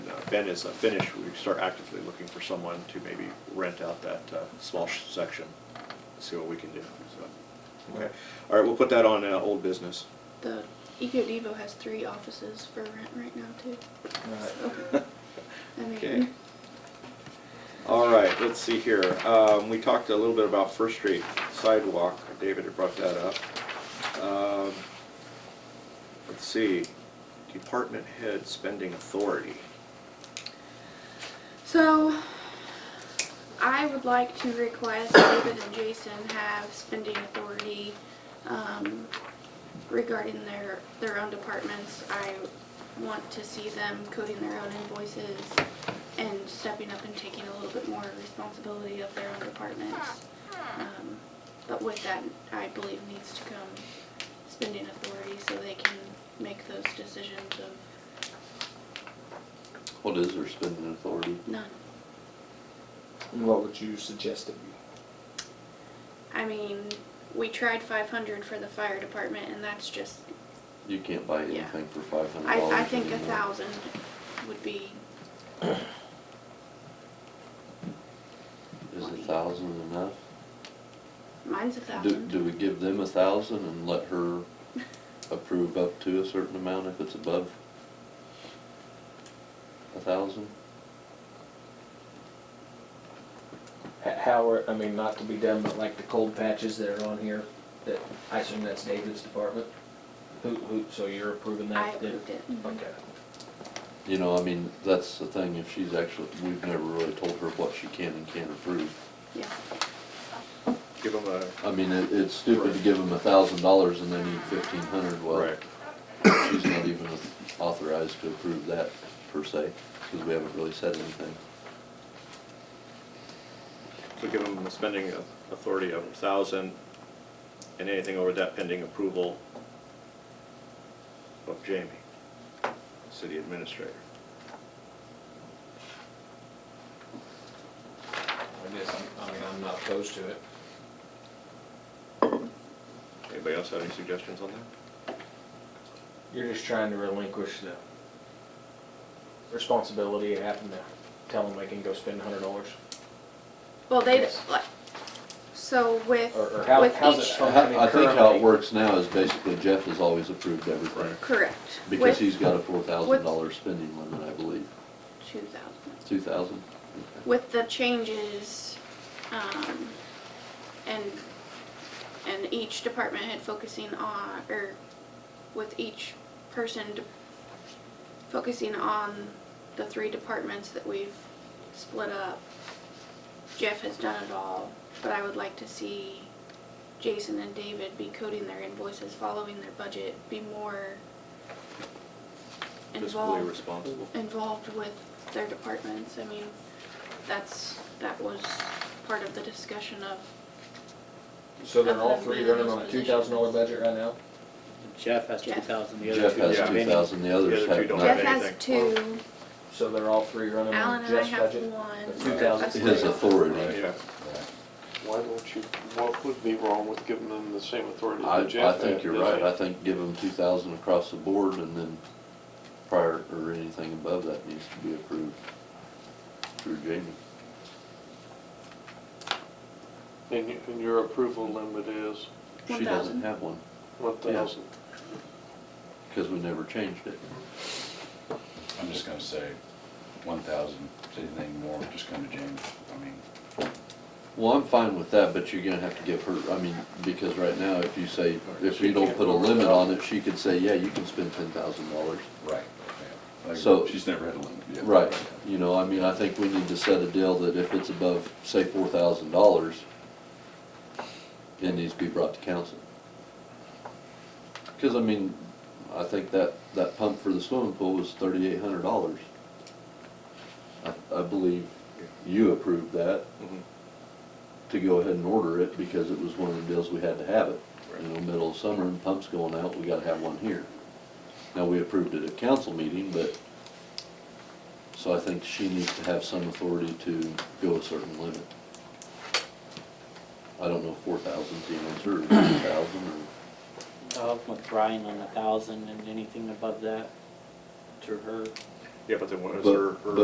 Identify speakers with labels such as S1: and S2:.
S1: Ben is uh, finished, we start actively looking for someone to maybe rent out that uh, small sh- section, see what we can do, so. Okay, all right, we'll put that on uh, old business.
S2: The Eco Devo has three offices for rent right now too. So, I
S1: Okay.
S2: mean,
S1: All right, let's see here. Um, we talked a little bit about First Street sidewalk. David had brought that up. Um, let's see, department head spending authority.
S2: so I would like to request David and Jason have spending authority um, regarding their, their own departments. I want to see them coding their own invoices and stepping up and taking a little bit more responsibility of their own departments. Um, But with that, I believe needs to come spending authority so they can make those decisions of
S3: What is their spending authority?
S2: None.
S4: And what would you suggest it be?
S2: I mean, we tried five hundred for the fire department and that's just,
S3: You can't buy
S2: Yeah.
S3: anything for five hundred
S2: I,
S3: dollars.
S2: I think a thousand would be,
S3: Is a thousand enough?
S2: mine's a
S3: Do,
S2: thousand.
S3: do we give them a thousand and let her approve up to a certain amount if it's above a thousand?
S4: H- How are, I mean, not to be done, but like the cold patches that are on here, that, I assume that's David's department? Who, who, so you're approving that?
S2: I approved it. Mm-hmm.
S4: Okay.
S3: You know, I mean, that's the thing, if she's actually, we've never really told her what she can and can't approve.
S2: Yeah,
S1: Give them a,
S3: I mean, it, it's stupid to give them a thousand dollars and they need fifteen hundred, well,
S1: right,
S3: she's not even authorized to approve that per se, because we haven't really said anything.
S1: so give them a spending authority of a thousand and anything over that pending approval of Jamie, city administrator.
S4: I guess, I'm- I mean, I'm not opposed to it.
S1: Anybody else have any suggestions on that?
S4: You're just trying to relinquish the responsibility of having to tell them they can go spend a hundred dollars?
S2: well, they,
S4: Yes.
S2: like, so with,
S4: Or- or how-
S2: with
S4: how's it
S2: each,
S4: from-
S3: I I think how it works now is basically Jeff has always approved everything,
S2: correct,
S3: because
S2: with
S3: he's got a four
S2: with-
S3: thousand dollar spending limit, I believe,
S2: two thousand.
S3: two thousand?
S2: With the changes, um, and, and each department head focusing on, or with each person de- focusing on the three departments that we've split up. Jeff has done it all, but I would like to see Jason and David be coding their invoices, following their budget, be more
S1: Fiscally
S2: involved,
S1: responsible.
S2: involved with their departments. I mean, that's, that was part of the discussion of,
S4: So they're all three running on a two thousand dollar budget right now?
S5: Jeff has two
S2: Jeff.
S5: thousand, the other
S3: Jeff
S5: two
S3: has
S1: Yeah.
S5: are
S3: two
S5: spending.
S3: thousand, the
S1: The
S3: others
S1: other two
S3: have
S1: don't have
S2: Jeff
S3: nothing.
S2: has
S1: anything.
S2: two,
S4: So they're all three running
S2: Alan
S4: on
S2: and I
S4: Jeff's
S2: have
S4: budget?
S2: one.
S4: The two thousand
S2: That's
S3: His
S2: three.
S3: authority,
S1: Yeah,
S6: Why don't you, what would be wrong with giving them the same authority
S3: I,
S6: that
S3: I
S6: Jeff had?
S3: think you're
S6: is
S3: right,
S6: it?
S3: I think give them two thousand across the board and then prior, or anything above that needs to be approved through Jamie.
S6: And, you- and your approval limit is
S3: She
S2: 1,000.
S3: doesn't have one,
S6: one thousand?
S3: because we never changed it.
S7: I'm just gonna say, one thousand, anything more, just come to James, I mean.
S3: Well, I'm fine with that, but you're gonna have to give her, I mean, because right now, if you say, if you don't put a limit on it, she could say, yeah, you can spend ten thousand dollars.
S7: Right. Like,
S3: So-
S7: she's never had a limit yet.
S3: Right, you know, I mean, I think we need to set a deal that if it's above, say, four thousand dollars, it needs to be brought to council. Cause I mean, I think that, that pump for the swimming pool was thirty-eight hundred dollars. I, I believe you approved that
S1: Mhm.
S3: to go ahead and order it because it was one of the deals we had to have it. In the middle of summer and pumps going out, we gotta have one here. Now, we approved it at council meeting, but, so I think she needs to have some authority to go a certain limit. I don't know, four thousand, you know, or two thousand, or,
S5: I'll up with Brian on a thousand and anything above that to her.
S1: yeah, but then what is
S3: But-
S1: her, her